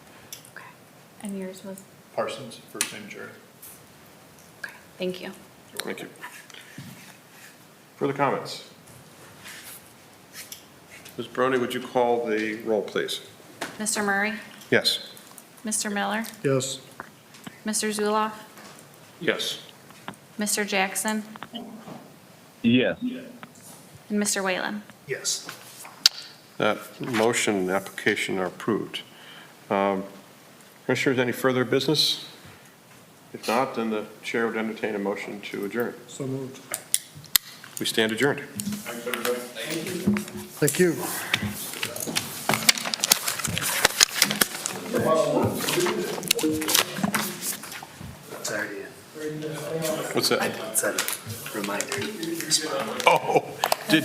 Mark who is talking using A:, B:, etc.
A: And yours was?
B: Parsons, first name Jerry.
A: Okay, thank you.
C: Thank you. Further comments? Ms. Brony, would you call the roll, please?
D: Mr. Murray?
C: Yes.
D: Mr. Miller?
B: Yes.
D: Mr. Zuloff?
C: Yes.
D: Mr. Jackson?
E: Yes.
D: And Mr. Whalen?
B: Yes.
C: That motion and application are approved. Um, Commissioners, any further business? If not, then the chair would entertain a motion to adjourn.
B: So moved.
C: We stand adjourned.
B: Thank you.
F: It's already in.
C: What's that?
F: It's a reminder.
C: Oh.